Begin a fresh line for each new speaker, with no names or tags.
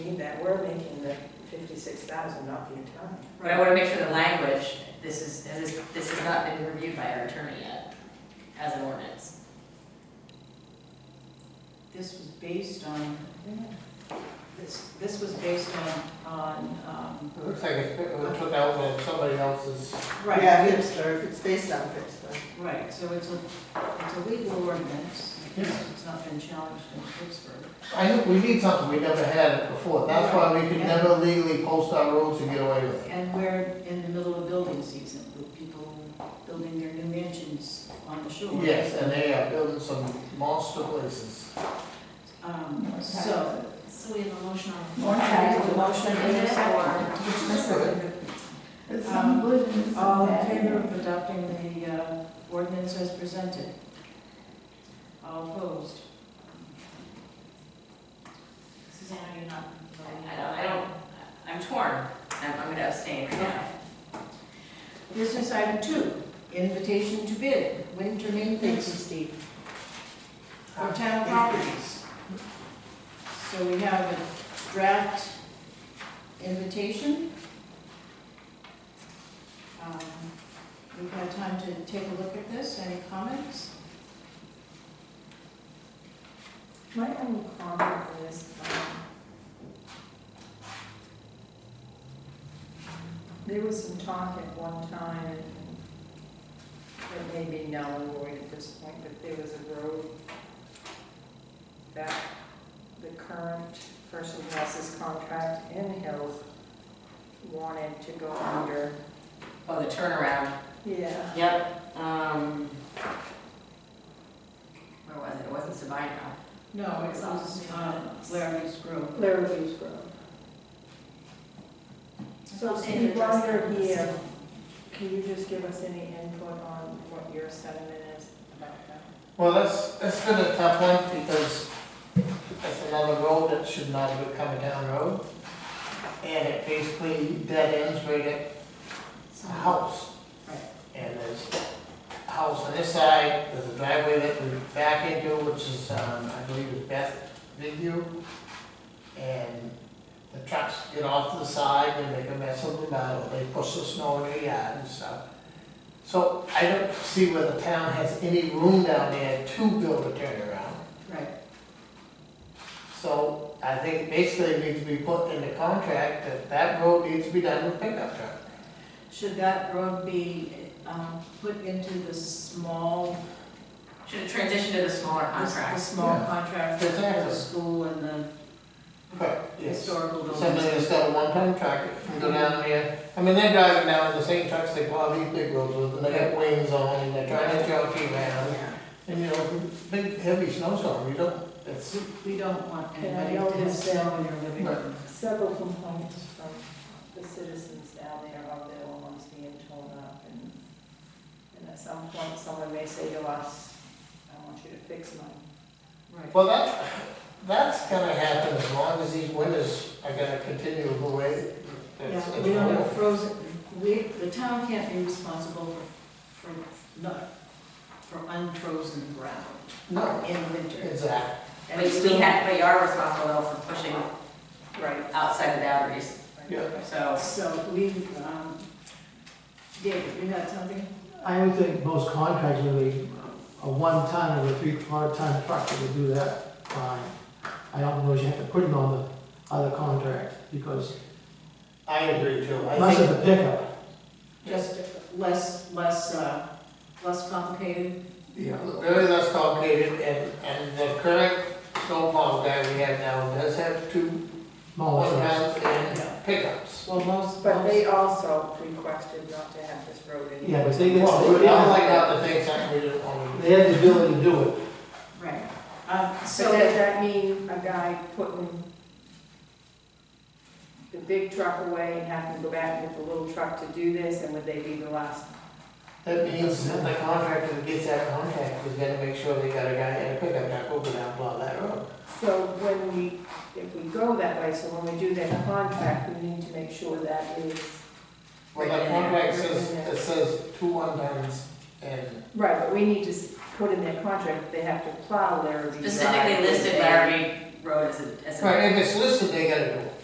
that we're making the fifty-six thousand, not the attorney.
But I wanna make sure the language, this is, this is, this has not been reviewed by our attorney yet, as an ordinance.
This was based on, this, this was based on, on, um,
It looks like it's it was took out of somebody else's,
right.
Yeah, Hipster, it's based on Hipster.
Right, so it's a, it's a legal ordinance, it's not been challenged in Pittsburgh.
I think we need something, we never had it before, that's why we could never legally post our roads and get away with it.
And we're in the middle of building season, with people building their new mansions on the shore.
Yes, and they are building some monster places.
Um, so,
So we have a motion on.
More time.
Motion is
It's unbelievable. it's
all in
bad.
favor of adopting the uh, ordinance as presented? All opposed?
Susanna, you're not voting? I don't, I don't, I'm torn, I'm, I'm gonna abstain right now.
Business item two, invitation to bid, winter maintenance Steve. For town properties. So we have a draft invitation. Um, We've had time to take a look at this, any comments?
My only comment is, um, there was some talk at one time, and it may be null and void at this point, but there was a road that the current person who has this contract in Hills wanted to go under.
Oh, the turnaround.
Yeah.
Yep. Um. Where was it? It wasn't Sabino.
No, it was uh, Laramie's Grove.
Larrabee's Road. So Steve, while you're here, can you just give us any input on what your sentiment is about that?
Well, that's, that's been a tough one, because that's another road that should not have become a town road. And it basically dead ends right at a house.
Right.
And there's a house on this side, there's a driveway that we back into, which is, um, I believe is Beth Video. And the trucks get off to the side and make a mess of the metal, they push the snow in the yard and stuff. So I don't see where the town has any room down there to build a turnaround.
Right.
So I think basically it needs to be put in the contract that that road needs to be done with pickup truck.
Should that road be um, put into the small
Should have transitioned to the smaller
The the
contract.
small
Yeah.
contract with the
Exactly.
school and the
But, yes.
historical
Somebody that's
buildings.
got a one-ton tractor can go down there, I mean, they're driving down the same trucks they plow these big roads with, and they got wings on, and they're trying to jockey around.
Yeah.
And you know, big heavy snowstorm, you don't, it's,
So We don't want
And I
anybody
know
to have
there's
snow in your living
Right.
room.
Several complaints from the citizens down there of their lawns being torn up and, and at some point, someone may say to us, I want you to fix mine.
Right.
well, that, that's gonna happen as long as these winters are gonna continue the way. it's-
Yeah,
it's
we don't
going.
have frozen, we, the town can't be responsible for, for, not, for unfrozen ground
No,
in winter.
exactly,
But we had, but you are responsible though for pushing
Right.
outside the boundaries,
yeah.
so.
So we, um, David, you had something?
I would think most contracts would be a one ton or a three quarter ton truck that would do that fine. I don't know if you have to put it on the other contract because
I agree too, I
less of
think,
the pickup.
Just less, less, uh, less complicated?
yeah, very less complicated, and, and the current snowplow guy we have now does have two
smaller trucks.
one-tons and pickups.
Well, most,
But
most,
they also requested not to have this road anymore.
Yeah, but they get,
Well, we
they
don't like
have,
that to think something we don't want to do.
they have the ability to do it.
right. Um,
So
So.
does that mean a guy putting the big truck away and having to go back with the little truck to do this, and would they be the last?
That means that the contractor that gets that contract is gonna make sure they got a guy and a pickup truck open out blow that road.
So when we, if we go that way, so when we do that contract, we need to make sure that is.
Well, that contract says, it says two one tons and,
Right, but we need to s- put in their contract, that they have to plow their.
Specifically listed Laramie Road as a, as a.
right, if it's listed, they gotta do it.